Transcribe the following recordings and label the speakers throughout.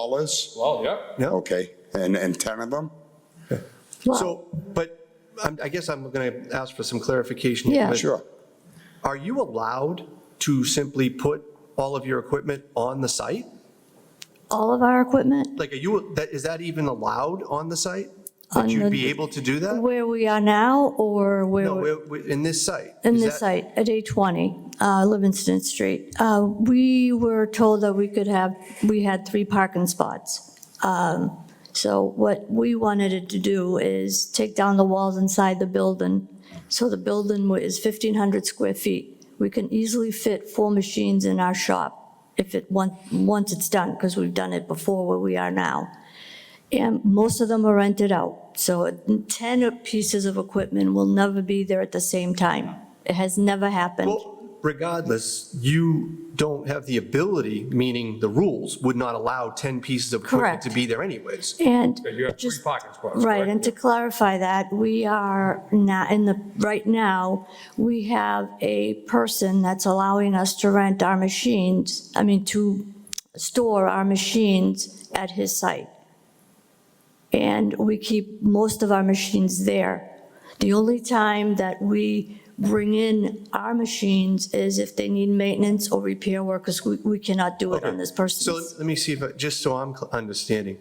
Speaker 1: Lawless?
Speaker 2: Well, yeah.
Speaker 3: Yeah.
Speaker 1: Okay, and, and 10 of them?
Speaker 3: So, but I'm- I guess I'm going to ask for some clarification.
Speaker 4: Yeah.
Speaker 3: but
Speaker 1: Sure.
Speaker 3: Are you allowed to simply put all of your equipment on the site?
Speaker 4: All of our equipment,
Speaker 3: Like, are you, that, is that even allowed on the site?
Speaker 4: On
Speaker 3: Would you
Speaker 4: the-
Speaker 3: be able to do that?
Speaker 4: where we are now or where,
Speaker 3: No,
Speaker 4: we're-
Speaker 3: we- we- in this site?
Speaker 4: in
Speaker 3: Is
Speaker 4: this
Speaker 3: that-
Speaker 4: site, at 820 uh, Livingston Street, Uh, we were told that we could have, we had three parking spots. Um, So what we wanted it to do is take down the walls inside the building. So the building wa- is 1,500 square feet. We can easily fit four machines in our shop if it, on- once it's done, because we've done it before where we are now. And most of them are rented out. So 10 pieces of equipment will never be there at the same time. It has never happened.
Speaker 3: Well, regardless, you don't have the ability, meaning the rules would not allow 10 pieces of equipment
Speaker 4: Correct.
Speaker 3: to be there anyways.
Speaker 4: And
Speaker 2: You have three
Speaker 4: just,
Speaker 2: parking spots,
Speaker 4: right,
Speaker 2: correct?
Speaker 4: and to clarify that, we are not, in the, right now, we have a person that's allowing us to rent our machines, I mean, to store our machines at his site. And we keep most of our machines there. The only time that we bring in our machines is if they need maintenance or repair work, because we we cannot do it on this
Speaker 3: So
Speaker 4: person's.
Speaker 3: let me see if, I- just so I'm cl- understanding.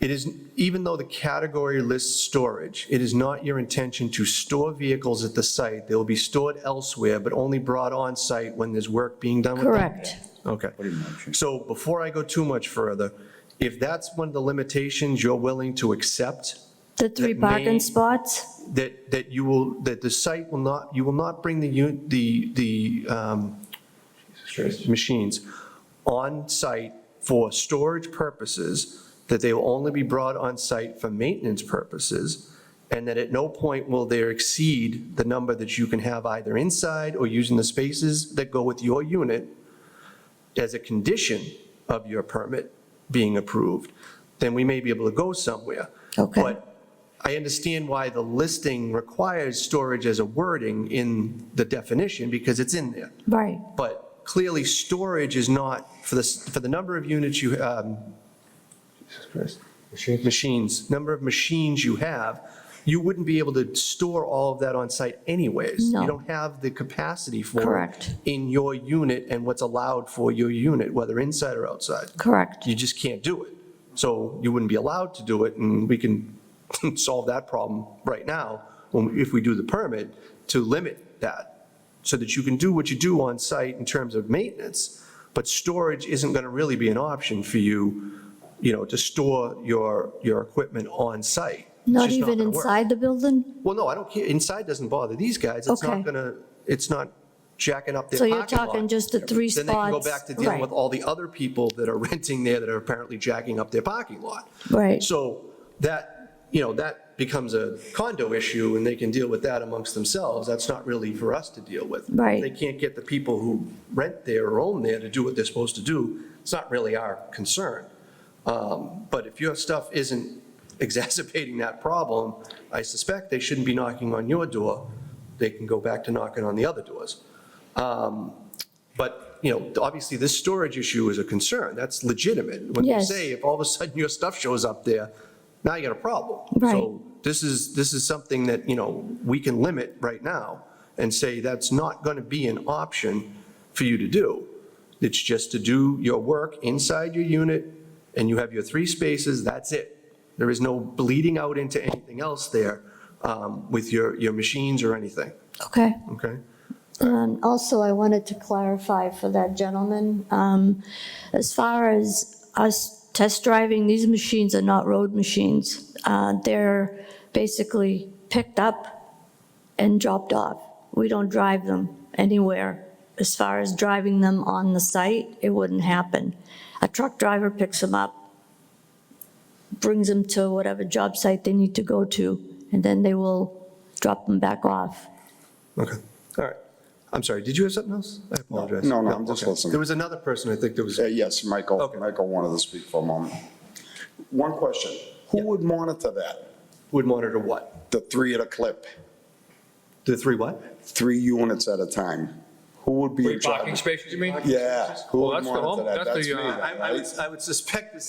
Speaker 3: It is, even though the category lists storage, it is not your intention to store vehicles at the site. They will be stored elsewhere, but only brought on-site when there's work being done with them?
Speaker 4: Correct.
Speaker 3: Okay. So before I go too much further, if that's one of the limitations you're willing to accept,
Speaker 4: The three
Speaker 3: That may-
Speaker 4: parking spots?
Speaker 3: that, that you will, that the site will not, you will not bring the, u- the, the um, machines on-site for storage purposes, that they will only be brought on-site for maintenance purposes, and that at no point will there exceed the number that you can have either inside or using the spaces that go with your unit as a condition of your permit being approved, then we may be able to go somewhere.
Speaker 4: Okay.
Speaker 3: But I understand why the listing requires storage as a wording in the definition, because it's in there.
Speaker 4: Right.
Speaker 3: But clearly, storage is not, for the, for the number of units you, um, Jesus Christ. Machines, number of machines you have, you wouldn't be able to store all of that on site anyways.
Speaker 4: No.
Speaker 3: You don't have the capacity for. it
Speaker 4: Correct.
Speaker 3: In your unit and what's allowed for your unit, whether inside or outside.
Speaker 4: Correct.
Speaker 3: You just can't do it. So you wouldn't be allowed to do it, and we can solve that problem right now, when- if we do the permit, to limit that, so that you can do what you do on site in terms of maintenance, but storage isn't going to really be an option for you, you know, to store your, your equipment on site. It's
Speaker 4: Not
Speaker 3: just
Speaker 4: even
Speaker 3: gonna work.
Speaker 4: inside the building?
Speaker 3: Well, no, I don't care, inside doesn't bother these guys, it's
Speaker 4: Okay.
Speaker 3: not going to, it's not jacking up their
Speaker 4: So
Speaker 3: parking
Speaker 4: you're
Speaker 3: lot.
Speaker 4: talking just the three
Speaker 3: Then they can go
Speaker 4: spots?
Speaker 3: back to dealing
Speaker 4: Right.
Speaker 3: with all the other people that are renting there that are apparently jacking up their parking lot.
Speaker 4: Right.
Speaker 3: So that, you know, that becomes a condo issue and they can deal with that amongst themselves. That's not really for us to deal with.
Speaker 4: Right.
Speaker 3: They can't get the people who rent there or own there to do what they're supposed to do. It's not really our concern. Um, But if your stuff isn't exacerbating that problem, I suspect they shouldn't be knocking on your door. They can go back to knocking on the other doors. Um, But, you know, obviously, this storage issue is a concern. That's legitimate. When you
Speaker 4: Yes.
Speaker 3: say, if all of a sudden your stuff shows up there, now you got a problem.
Speaker 4: Right.
Speaker 3: So this is, this is something that, you know, we can limit right now and say that's not going to be an option for you to do. It's just to do your work inside your unit, and you have your three spaces, that's it. There is no bleeding out into anything else there um, with your, your machines or anything,
Speaker 4: Okay.
Speaker 3: okay?
Speaker 4: Um, Also, I wanted to clarify for that gentleman, um, as far as us test driving, these machines are not road machines. Uh, They're basically picked up and dropped off. We don't drive them anywhere. As far as driving them on the site, it wouldn't happen. A truck driver picks them up, brings them to whatever job site they need to go to, and then they will drop them back off.
Speaker 3: Okay, all right. I'm sorry, did you have something else? I apologize.
Speaker 1: no, no, I'm just
Speaker 3: okay.
Speaker 1: listening.
Speaker 3: There was another person, I think, that was,
Speaker 1: Uh, Yes, Michael,
Speaker 3: Okay.
Speaker 1: Michael wanted to speak for a moment. One question, who would monitor that?
Speaker 3: would monitor what?
Speaker 1: The three at a clip,
Speaker 3: The three what?
Speaker 1: three units at a time? Who would be
Speaker 2: Three
Speaker 1: in
Speaker 2: parking
Speaker 1: charge?
Speaker 2: spaces, you mean?
Speaker 1: Yeah. who
Speaker 2: Well,
Speaker 1: would
Speaker 2: that's the
Speaker 1: monitor
Speaker 2: home-
Speaker 1: that?
Speaker 2: that's the,
Speaker 1: me,
Speaker 2: uh,
Speaker 3: I I
Speaker 1: right?
Speaker 3: would, I would suspect the